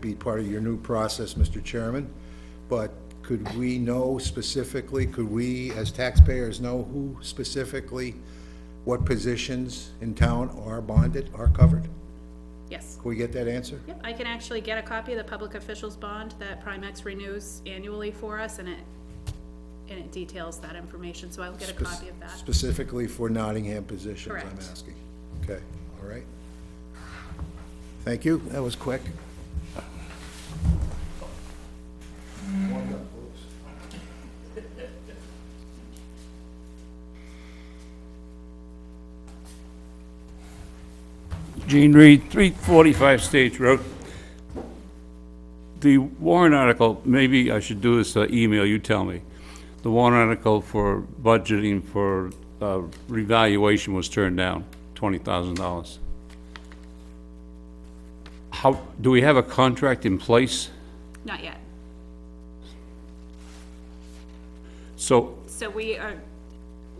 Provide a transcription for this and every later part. be part of your new process, Mr. Chairman, but could we know specifically, could we, as taxpayers, know who specifically, what positions in town are bonded, are covered? Yes. Can we get that answer? Yep, I can actually get a copy of the public officials bond that Primex renews annually for us, and it, and it details that information, so I'll get a copy of that. Specifically for Nottingham positions, I'm Correct. asking. Okay, all right. Thank you, that was quick. Gene Reed, 345 Stage Road. The Warren article, maybe I should do this uh, email, you tell me. The Warren article for budgeting for uh, revaluation was turned down, $20,000. How, do we have a contract in place? Not yet. So, So we are,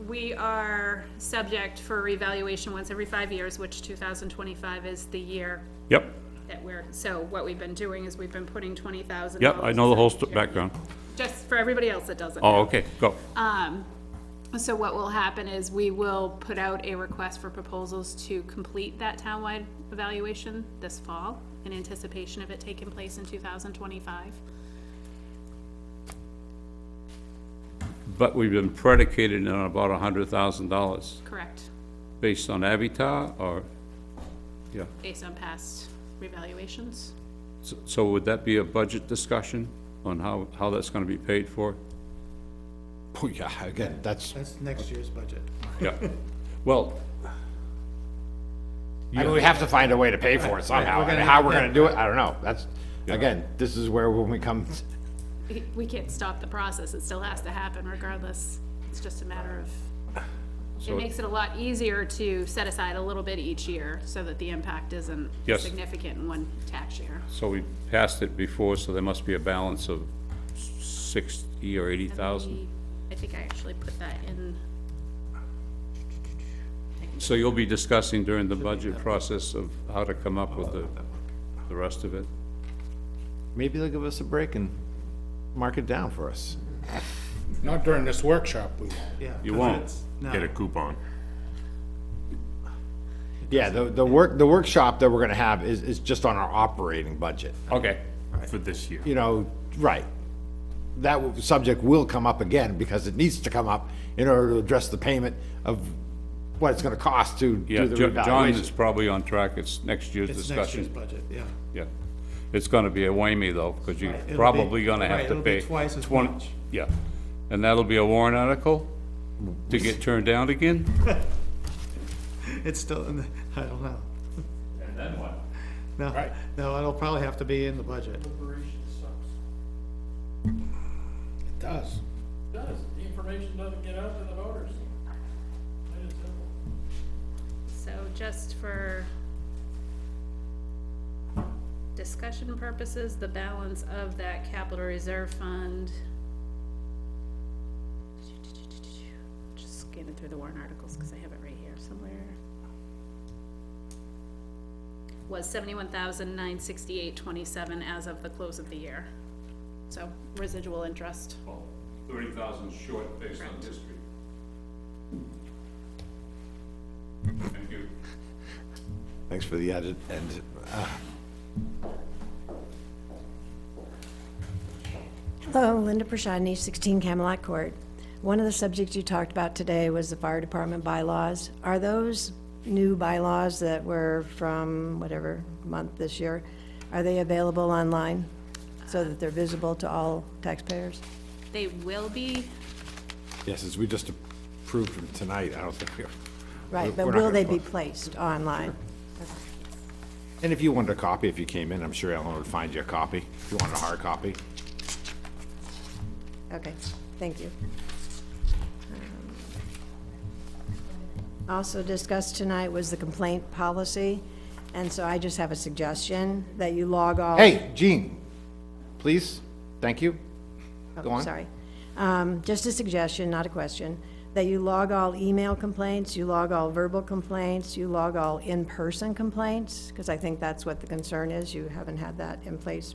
we are subject for revaluation once every five years, which two thousand twenty-five is the year yep, that we're, so what we've been doing is we've been putting twenty thousand. yep, I know the whole sto- background. Just for everybody else that doesn't. Oh, okay, go. Um, so what will happen is we will put out a request for proposals to complete that townwide evaluation this fall in anticipation of it taking place in two thousand twenty-five. But we've been predicated on about $100,000 Correct, based on Avatar or, yeah. based on past revaluations. So- So would that be a budget discussion on how, how that's gonna be paid for? Oh, yeah, again, that's, That's next year's budget. Yeah, well, I mean, we have to find a way to pay for it somehow, we're gonna and have- how we're gonna do it, I don't know, that's, Yeah. again, this is where when we come, We- We can't stop the process, it still has to happen regardless. It's just a matter of, it So- makes it a lot easier to set aside a little bit each year so that the impact isn't Yes. significant in one tax year. so we passed it before, so there must be a balance of sixty or eighty thousand. I think I actually put that in. So you'll be discussing during the budget process of how to come up with the, the rest of it? maybe they'll give us a break and mark it down for us. Not during this workshop, we won't. Yeah. You 'cause won't. it's- Get a No, coupon. Yeah, the, the work, the workshop that we're gonna have is, is just on our operating budget, Okay, for this year. you know, right. That w- subject will come up again, because it needs to come up in order to address the payment of what it's gonna cost to yeah, do the Jo- John revaluation. is probably on track, it's next year's it's next year's discussion. budget, yeah. Yeah, it's gonna be a whammy though, because you're Right, it'll be- probably gonna have right, to it'll pay. be twice as 20 much. Yeah, and that'll be a warrant article to get turned down again? It's still in the, I don't know. And then what? No, no, it'll probably have to be in the budget. It does. does, the information doesn't get out to the voters. Plain and simple. So just for discussion purposes, the balance of that capital reserve fund. Just scanning through the warrant articles, cause I have it right here somewhere. Was seventy-one thousand nine sixty-eight twenty-seven as of the close of the year. So residual interest. Thirty thousand short based on history. Thank you. Thanks for the edit, and, uh, Hello, Linda Prashadny, 16 Camelot Court. One of the subjects you talked about today was the fire department bylaws. Are those new bylaws that were from whatever month this year, are they available online so that they're visible to all taxpayers? They will be yes, as we just approved them tonight, I don't think we're. Right, but we're not will they gonna be placed online? And if you wanted a copy, if you came in, I'm sure Ellen would find you a copy, if you wanted a hard copy. Okay, thank you. Also discussed tonight was the complaint policy, and so I just have a suggestion that you log all. Hey, Gene, please, thank you. Oh, Go on. Sorry. Um, Just a suggestion, not a question, that you log all email complaints, you log all verbal complaints, you log all in-person complaints, because I think that's what the concern is, you haven't had that in place